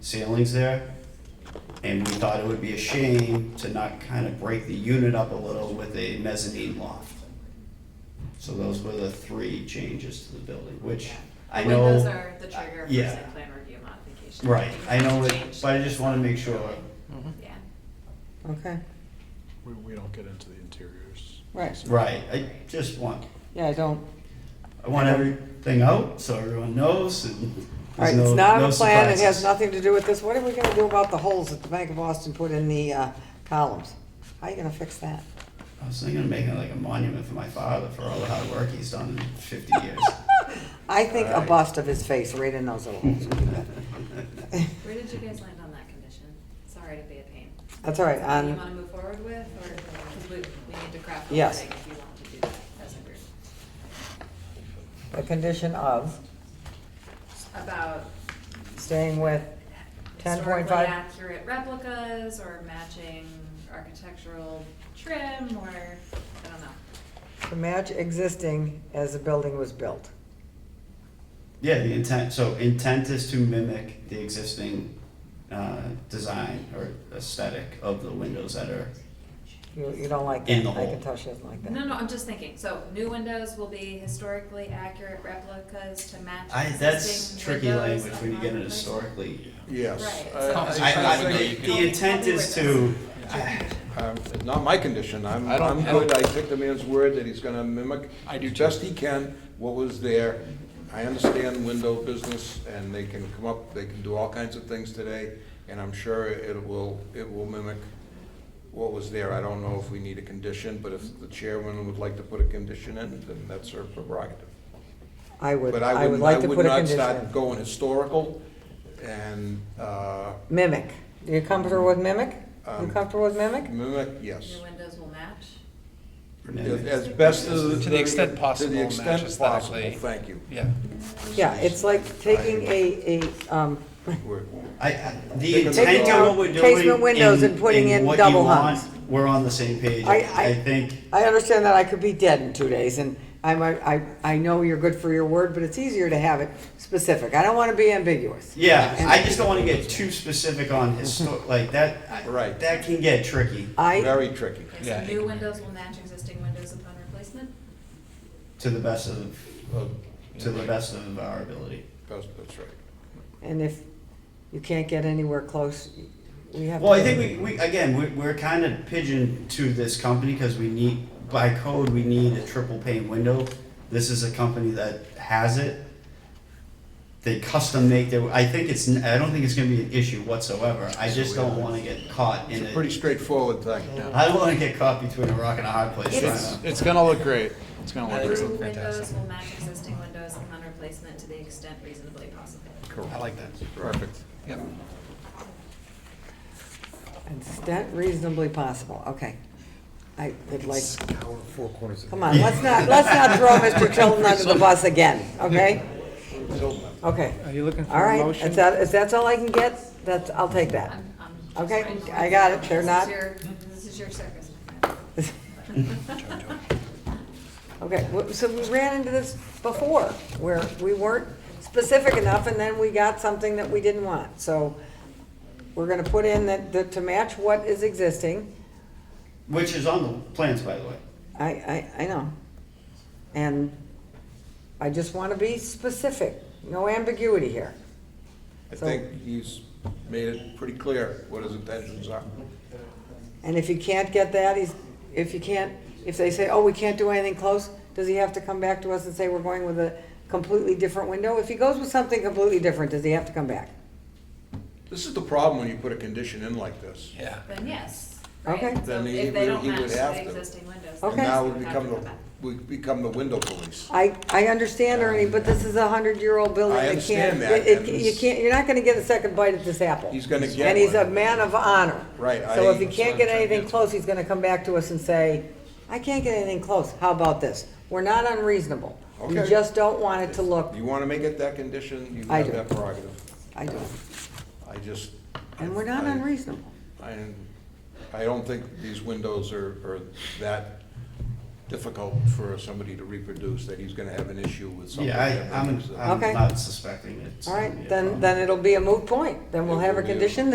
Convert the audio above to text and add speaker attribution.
Speaker 1: ceilings there. And we thought it would be a shame to not kind of break the unit up a little with a mezzanine loft. So those were the three changes to the building, which I know. Uh,
Speaker 2: When those are the trigger for
Speaker 1: yeah.
Speaker 2: site plan review modification.
Speaker 1: Right, I know, it,
Speaker 2: Change.
Speaker 1: but I just want to make sure,
Speaker 2: Yeah,
Speaker 3: Okay,
Speaker 4: We, we don't get into the interiors.
Speaker 3: right.
Speaker 1: right, I just want,
Speaker 3: Yeah, I don't,
Speaker 1: I want everything out so everyone knows and
Speaker 3: all
Speaker 1: there's
Speaker 3: right,
Speaker 1: no,
Speaker 3: it's not
Speaker 1: no
Speaker 3: a plan, it has
Speaker 1: surprises.
Speaker 3: nothing to do with this. What are we gonna do about the holes that the Bank of Boston put in the uh, columns? How are you gonna fix that?
Speaker 1: I was thinking of making like a monument for my father for all the hard work he's done in fifty years.
Speaker 3: I think a
Speaker 1: Right.
Speaker 3: bust of his face right in those little holes.
Speaker 2: where did you guys land on that condition? Sorry to be a pain.
Speaker 3: That's all right,
Speaker 2: Do you wanna
Speaker 3: on,
Speaker 2: move forward with, or, cause we, we need to craft a
Speaker 3: Yes.
Speaker 2: thing if you want to do that as a group.
Speaker 3: the condition of
Speaker 2: About
Speaker 3: staying with, 10.5?
Speaker 2: historically accurate replicas, or matching architectural trim, or, I don't know.
Speaker 3: to match existing as the building was built.
Speaker 1: Yeah, the intent, so intent is to mimic the existing, uh, design or aesthetic of the windows that are,
Speaker 3: You, you don't like
Speaker 1: In
Speaker 3: that,
Speaker 1: the
Speaker 3: I
Speaker 1: hole.
Speaker 3: can tell she doesn't like
Speaker 2: No,
Speaker 3: that.
Speaker 2: no, I'm just thinking, so new windows will be historically accurate replicas to match
Speaker 1: I, that's
Speaker 2: existing
Speaker 1: tricky
Speaker 2: windows
Speaker 1: language when you get
Speaker 2: upon
Speaker 1: into
Speaker 2: replacement.
Speaker 1: historically.
Speaker 4: Yes.
Speaker 2: Right.
Speaker 4: I- I-
Speaker 1: I, I,
Speaker 5: Tell me-
Speaker 1: the-
Speaker 5: tell
Speaker 1: the
Speaker 5: me
Speaker 1: intent
Speaker 2: where
Speaker 1: is
Speaker 2: that's-
Speaker 1: to,
Speaker 6: Um, it's Not my condition, I'm,
Speaker 5: I don't-
Speaker 6: I'm
Speaker 5: I don't-
Speaker 6: good, I took the man's word that he's gonna mimic
Speaker 5: I do
Speaker 6: as best he can what was there. I understand window business, and they can come up, they can do all kinds of things today, and I'm sure it will, it will mimic what was there. I don't know if we need a condition, but if the chairman would like to put a condition in, then that's her prerogative.
Speaker 3: I would,
Speaker 6: But
Speaker 3: I would
Speaker 6: wouldn't-
Speaker 3: like to put a
Speaker 6: I would not
Speaker 3: condition.
Speaker 6: start going historical, and, uh,
Speaker 3: Mimic, are you comfortable with mimic? You
Speaker 6: Um,
Speaker 3: comfortable with mimic?
Speaker 6: mimic, yes.
Speaker 2: New windows will match?
Speaker 6: As best as.
Speaker 5: To the extent possible,
Speaker 6: To the
Speaker 5: match
Speaker 6: extent
Speaker 5: aesthetically.
Speaker 6: possible, thank you.
Speaker 5: Yeah.
Speaker 3: Yeah, it's like taking a, a, um,
Speaker 6: We're-
Speaker 1: I- I, the
Speaker 6: Taking
Speaker 1: intent
Speaker 6: down
Speaker 1: of what we're doing.
Speaker 3: casement windows
Speaker 1: and-
Speaker 3: and putting in
Speaker 1: what you
Speaker 3: double
Speaker 1: want,
Speaker 3: hungs.
Speaker 1: We're on the same page,
Speaker 3: I-
Speaker 1: I,
Speaker 3: I-
Speaker 1: I think,
Speaker 3: I understand that I could be dead in two days, and I'm, I, I- I know you're good for your word, but it's easier to have it specific. I don't want to be ambiguous.
Speaker 1: yeah,
Speaker 3: And-
Speaker 1: I just don't wanna get too specific on histo- like that, I-
Speaker 6: Right.
Speaker 1: that can get tricky
Speaker 3: I,
Speaker 6: Very tricky.
Speaker 2: Okay,
Speaker 5: Yeah,
Speaker 2: So
Speaker 5: it
Speaker 2: new
Speaker 5: can-
Speaker 2: windows will match existing windows upon replacement?
Speaker 1: to the best of,
Speaker 6: Uh,
Speaker 1: to the
Speaker 6: right.
Speaker 1: best of our ability.
Speaker 6: That's, that's right.
Speaker 3: and if you can't get anywhere close, we have.
Speaker 1: Well, I think we, we, again, we, we're kinda pigeon to this company, cause we need, by code, we need a triple pane window. This is a company that has it. They custom make their, I think it's, n- I don't think it's gonna be an issue whatsoever, I just don't wanna get caught in
Speaker 6: It's
Speaker 1: it.
Speaker 6: a pretty straightforward thing.
Speaker 1: I don't want to get caught between a rock and a hard place.
Speaker 5: It's,
Speaker 1: trying to-
Speaker 5: it's gonna look great. It's gonna look
Speaker 2: New
Speaker 5: great.
Speaker 2: windows will match existing windows upon replacement to the extent reasonably possible.
Speaker 5: I like that.
Speaker 6: Perfect.
Speaker 5: Yep.
Speaker 3: Is that reasonably possible? Okay. I would like,
Speaker 7: Hour and four quarters of
Speaker 3: come on, let's not, let's not throw Mr. Tilton under the bus again, okay? Okay.
Speaker 8: Are you looking
Speaker 3: All
Speaker 8: for a
Speaker 3: right,
Speaker 8: motion?
Speaker 3: if that, if that's all I can get, that's, I'll take that.
Speaker 2: I'm- I'm just
Speaker 3: Okay,
Speaker 2: trying to-
Speaker 3: I got it. They're not-
Speaker 2: This is your- this is your circus, my friend.
Speaker 3: Okay, w- so we ran into this before, where we weren't specific enough, and then we got something that we didn't want. So we're gonna put in that, that to match what is existing,
Speaker 1: Which is on the plans, by the way.
Speaker 3: I, I, I know. And I just wanna be specific, no ambiguity here.
Speaker 6: I
Speaker 3: So-
Speaker 6: think he's made it pretty clear what his intentions are.
Speaker 3: And if you can't get that, he's, if you can't, if they say, oh, we can't do anything close, does he have to come back to us and say we're going with a completely different window? If he goes with something completely different, does he have to come back?
Speaker 6: This is the problem when you put a condition in like this.
Speaker 5: Yeah.
Speaker 2: Then yes,
Speaker 3: Okay.
Speaker 2: right? So
Speaker 6: Then he
Speaker 2: if
Speaker 6: would-
Speaker 2: they don't
Speaker 6: he would
Speaker 2: match
Speaker 6: have
Speaker 2: the
Speaker 6: to.
Speaker 2: existing windows.
Speaker 6: And
Speaker 3: Okay.
Speaker 6: now
Speaker 2: they
Speaker 6: we
Speaker 2: have to
Speaker 6: become
Speaker 2: come
Speaker 6: the,
Speaker 2: back.
Speaker 6: we become the window police.
Speaker 3: I, I understand, Ernie, but this is a hundred-year-old building.
Speaker 6: I
Speaker 3: It can't-
Speaker 6: understand that,
Speaker 3: it- it-
Speaker 6: and
Speaker 3: You can't, you're not gonna get a second bite at this apple.
Speaker 6: He's gonna get
Speaker 3: And he's a
Speaker 6: one.
Speaker 3: man of honor.
Speaker 6: Right,
Speaker 3: So
Speaker 6: I-
Speaker 3: if he can't get anything close, he's gonna come back to us and say, I can't get anything close, how about this? We're not unreasonable. We
Speaker 6: Okay.
Speaker 3: just don't want it to look,
Speaker 6: You want to make it that condition, you
Speaker 3: I
Speaker 6: have
Speaker 3: do.
Speaker 6: that prerogative.
Speaker 3: I do,
Speaker 6: I just.
Speaker 3: and we're not
Speaker 6: I-
Speaker 3: unreasonable.
Speaker 6: I, I don't think these windows are, are that difficult for somebody to reproduce, that he's gonna have an issue with something.
Speaker 1: Yeah,
Speaker 6: that
Speaker 1: I, I'm,
Speaker 6: mimics that.
Speaker 1: I'm
Speaker 3: Okay.
Speaker 1: not suspecting it's.
Speaker 3: All
Speaker 1: gonna be
Speaker 3: right,
Speaker 1: a
Speaker 3: then,
Speaker 1: problem.
Speaker 3: then it'll be a moot point. Then we'll
Speaker 6: It
Speaker 3: have
Speaker 6: will
Speaker 3: a
Speaker 6: be a-
Speaker 3: condition